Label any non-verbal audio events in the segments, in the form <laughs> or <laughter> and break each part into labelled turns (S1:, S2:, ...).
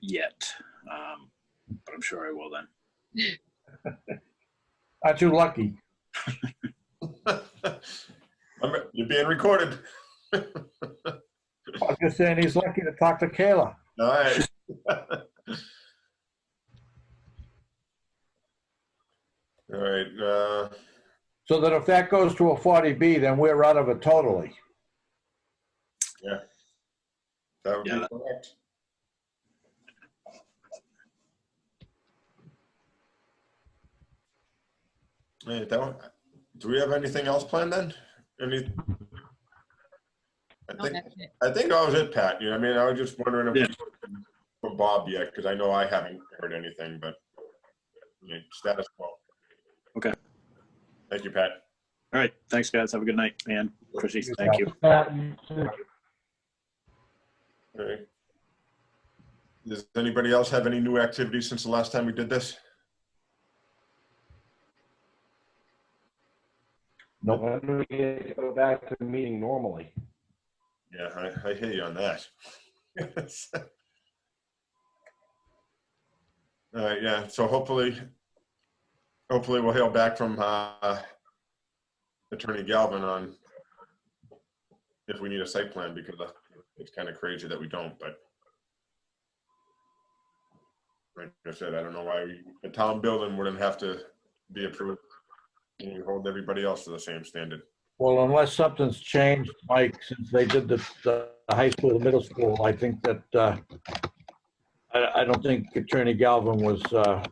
S1: yet. Um, but I'm sure I will then.
S2: Not too lucky.
S3: I'm- You're being recorded. <laughs>
S2: I was just saying he's lucky to talk to Kayla.
S3: All right. <laughs> All right, uh,
S2: So that if that goes to a 40B, then we're out of it totally.
S3: that would
S1: Yeah.
S3: be correct. Hey, that one, do we have anything else planned then? Any? I think,
S4: No, Oh, that's it.
S3: I think that was it, Pat. You know, I mean, I was just wondering
S1: Yeah.
S3: if for Bob yet, because I know I haven't heard anything, but I mean, status quo.
S1: Okay.
S3: Thank you, Pat.
S1: All right. Thanks, guys. Have a good night, man. Chrissy, thank you.
S3: All right. Does anybody else have any new activities since the last time we did this?
S2: Nope.
S5: When do we get to go back to meeting normally?
S3: Yeah, I, I hear you on that. <laughs> All right, yeah, so hopefully, hopefully we'll hear back from uh, Attorney Galvin on if we need a site plan, because it's kind of crazy that we don't, but like I said, I don't know why we- the town building wouldn't have to be approved. and We hold everybody else to the same standard.
S2: Well, unless something's changed, Mike, since they did the, the high school, the middle school, I think that, uh, I, I don't think Attorney Galvin was, uh,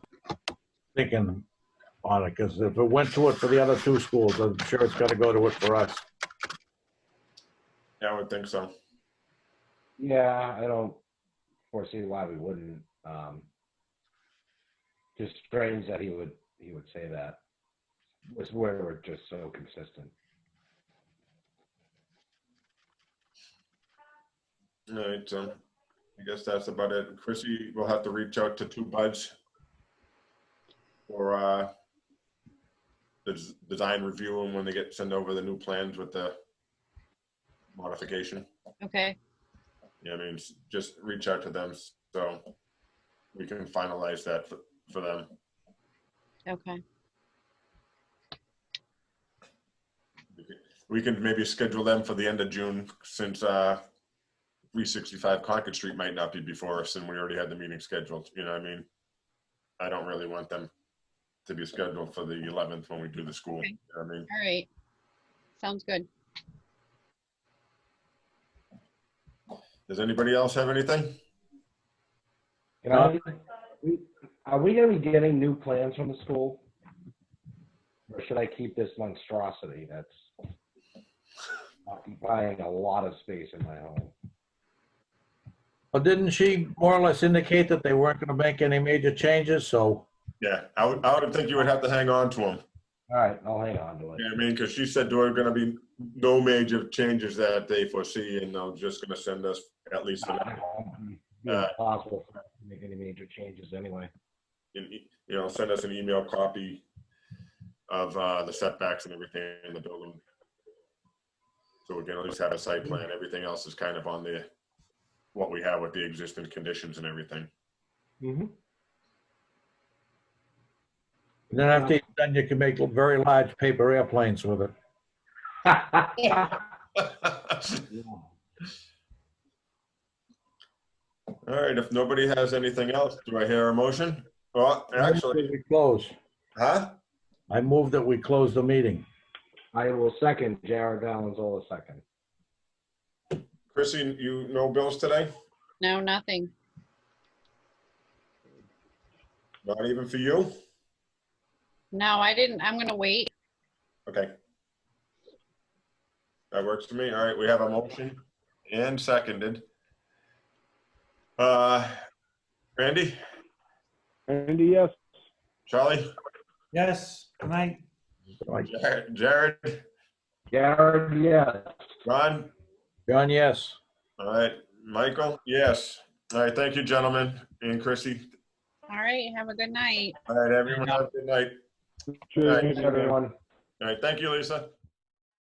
S2: thinking on it, because if it went to it for the other two schools, I'm sure it's gotta go to it for us.
S3: Yeah, I would think so.
S5: Yeah, I don't foresee why we wouldn't. Um, just strange that he would he would say that. Was where we're just so consistent.
S3: All right, so I guess that's about it. Chrissy, we'll have to reach out to two buds for uh, the des- design review and when they get, send over the new plans with the modification.
S4: Okay,
S3: Yeah, I mean, s- just reach out to them so we can finalize that for, for them.
S4: okay.
S3: We can maybe schedule them for the end of June since uh, 365 Concord Street might not be before us and we already had the meeting scheduled, you know what I mean? I don't really want them to be scheduled for the 11th when we do the school, you know what I mean?
S4: All right. Sounds good.
S3: Does anybody else have anything?
S5: You know, we, are we going to be getting new plans from the school, or should I keep this monstrosity that's occupying a lot of space in my home?
S2: But didn't she more or less indicate that they weren't gonna make any major changes, so,
S3: Yeah, I would, I would think you would have to hang on to them,
S5: All right, I'll hang on to it.
S3: you know what I mean? Because she said there are gonna be no major changes that they foresee and they're just gonna send us at least an
S5: Yeah, possible for us to make any major changes anyway.
S3: an e- you know, send us an email copy of uh, the setbacks and everything in the building. So we can at least have a site plan. Everything else is kind of on the, what we have with the existing conditions and everything.
S5: <laughs> Mm-hmm.
S2: and then after you're done, you can make very large paper airplanes with it.
S5: Yeah.
S3: All right, if nobody has anything else, do I hear a motion? Well, actually,
S2: We close.
S3: huh?
S2: I move that we close the meeting.
S5: I will second Jared Valenzola second.
S3: Chrissy, you no bills today?
S4: No, nothing.
S3: Not even for you?
S4: No, I didn't. I'm gonna wait.
S3: Okay. That works for me. All right, we have a motion and seconded. Uh, Randy,
S6: Randy, yes.
S3: Charlie,
S7: Yes, good night.
S2: Like,
S3: Jar- Jared,
S5: Jared, yes.
S3: Ron,
S2: John, yes.
S3: all right, Michael, yes. All right, thank you, gentlemen, and Chrissy.
S4: All right, have a good night.
S3: All right, everyone, have a good night.
S6: Cheers,
S3: Thanks,
S5: Everyone.
S3: All right, thank you, Lisa.